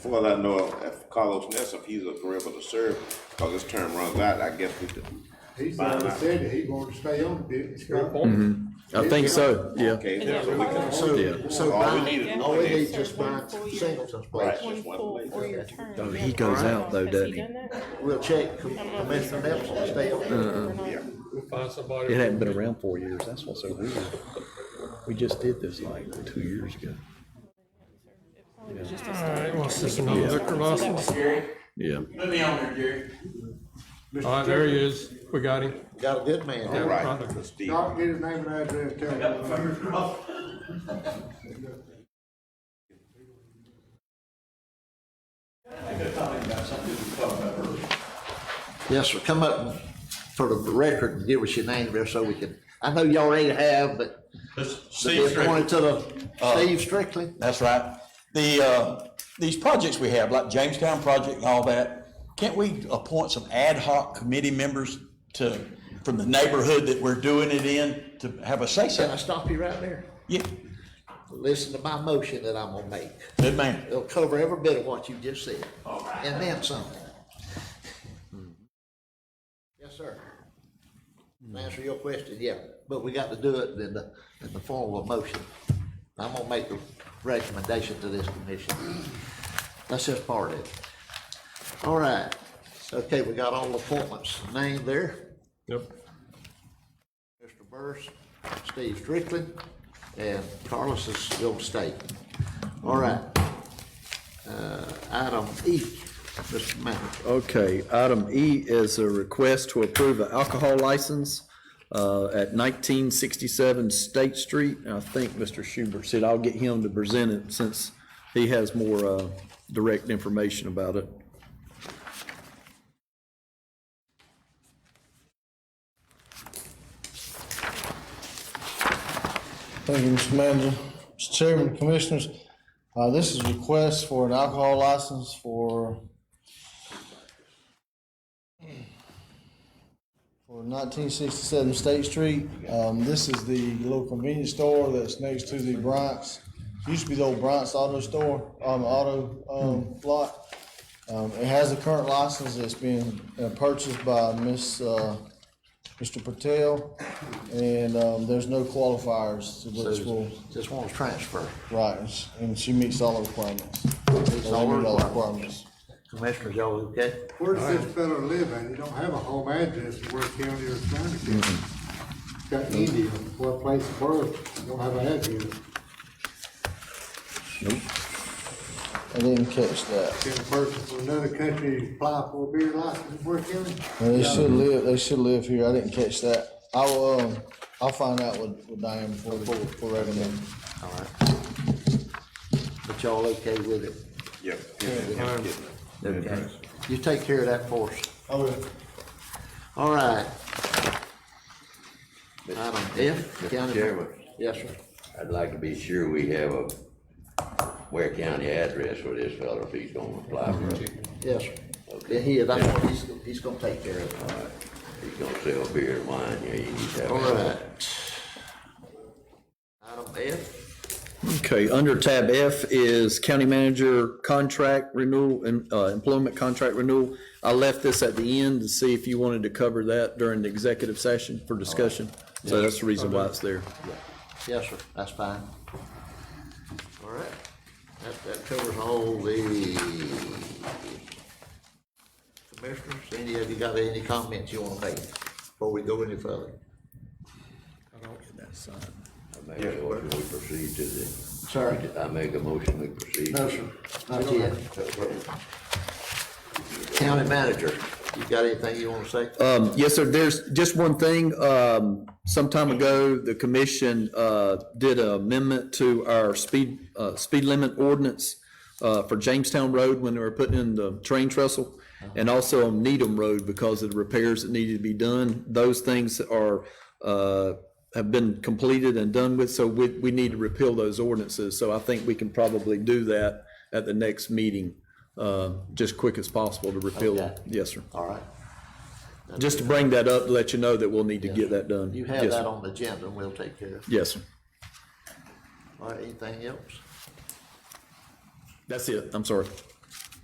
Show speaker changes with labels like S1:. S1: Well, I know if Carlos Ness, if he's agreeable to serve, because his term runs out, I guess we could.
S2: He's already said that he wanted to stay on the business.
S3: Mm-hmm. I think so, yeah.
S1: Okay, then, so we can.
S4: So,
S3: Yeah.
S4: so
S1: All we
S4: by,
S1: need is
S4: all
S1: one
S4: we
S1: name.
S4: need just by singles and places.
S1: Right.
S5: Twenty-four four-year term.
S3: Oh, he goes out though, doesn't he?
S4: We'll check Com- Commissioner Nelson to stay on.
S3: Mm-hmm.
S1: Yeah.
S6: We'll find somebody.
S3: It hadn't been around four years, that's what's so weird. We just did this like two years ago.
S6: All right, well, it's just another liquor license. All
S3: Yeah.
S6: right, there he is. We got him.
S4: Got a good man
S1: All
S4: there.
S1: right, Mr. Steve.
S2: Y'all can get his name and address, tell him.
S4: Yes, sir. Come up for the record and give us your name there so we can, I know you already have, but
S7: Steve
S4: they
S7: Strickland. Uh,
S4: appointed to the, Steve Strickland.
S7: That's right. The, uh, these projects we have, like Jamestown project and all that, can't we appoint some ad hoc committee members to, from the neighborhood that we're doing it in to have a say
S4: Can I
S7: so?
S4: stop you right there?
S7: Yeah,
S4: Listen to my motion that I'm gonna make.
S7: good man.
S4: It'll cover every bit of what you just said, and then some. Yes, sir. To Answer your question, yeah, but we got to do it in the, in the form of a motion. I'm gonna make the recommendation to this commission. That's just part of it. All right, okay, we got all the appointments named there.
S6: Yep.
S4: Mr. Burris, Steve Strickland, and Carlos is going to stay. All right. Uh, Item E, Mr. Manager.
S3: Okay, item E is a request to approve an alcohol license uh, at nineteen sixty-seven State Street. And I think Mr. Schubert said I'll get him to present it since he has more uh, direct information about it.
S8: Thank you, Mr. Manager. Mr. Chairman, Commissioners, uh, this is a request for an alcohol license for for nineteen sixty-seven State Street. Um, this is the little convenience store that's next to the Bryant's, used to be the old Bryant's Auto Store, um, auto, um, lot. Um, it has a current license that's been uh, purchased by Miss, uh, Mr. Patel, and, um, there's no qualifiers to which will,
S4: Just want to transfer.
S8: right, and she- and she meets all the requirements.
S4: all
S8: They meet all the
S4: requirements. Commissioners, y'all okay?
S2: Where does this fellow live at? He don't have a home address in Worth County or China County.
S3: Mm-hmm.
S2: Got India, what place of birth, he don't have an address.
S8: I didn't catch that.
S2: Can a person from another country apply for a beer license in Worth County?
S8: Well, They should live, they should live here. I didn't catch that. I will, um, I'll find out with, with Diane before, we- before we recommend.
S4: All right. But y'all okay with it?
S1: Yep. Yeah.
S4: Okay. You take care of that for us.
S8: I will.
S4: All right. Item F, County.
S9: Chairman.
S4: Yes, sir.
S9: I'd like to be sure we have a Ware County address for this fellow if he's gonna apply for it.
S4: Yes, sir. Yeah, he is. That's what he's, he's going to take care of it.
S9: He's gonna sell beer and wine, yeah, you need to have.
S4: All
S9: an
S4: right. Item F,
S3: Okay, under tab F is county manager contract renewal and uh, employment contract renewal. I left this at the end to see if you wanted to cover that during the executive session for discussion. So that's the reason why it's there.
S4: yes, sir, that's fine. All right, that, that covers all the commissioners, any of you got any comments you wanna make before we go any further?
S9: I make a motion, we proceed to the.
S4: Sorry.
S9: I make a motion, we proceed.
S4: No, sir, not yet. County manager, you got anything you wanna say?
S3: Um, yes, sir, there's just one thing. Um, some time ago, the commission, uh, did an amendment to our speed, uh, speed limit ordinance, uh, for Jamestown Road when they were putting in the train trestle, and also on Needham Road because of the repairs that needed to be done. Those things are, uh, have been completed and done with, so we, we need to repeal those ordinances. So I think we can probably do that at the next meeting, uh, just quick as possible to repeal them.
S4: Okay.
S3: Yes, sir.
S4: All right,
S3: Just to bring that up, to let you know that we'll need to get that done.
S4: you have
S3: Yes,
S4: that
S3: sir.
S4: on the agenda, and we'll take care of it.
S3: Yes, sir.
S4: All right, anything else?
S3: That's it. I'm sorry.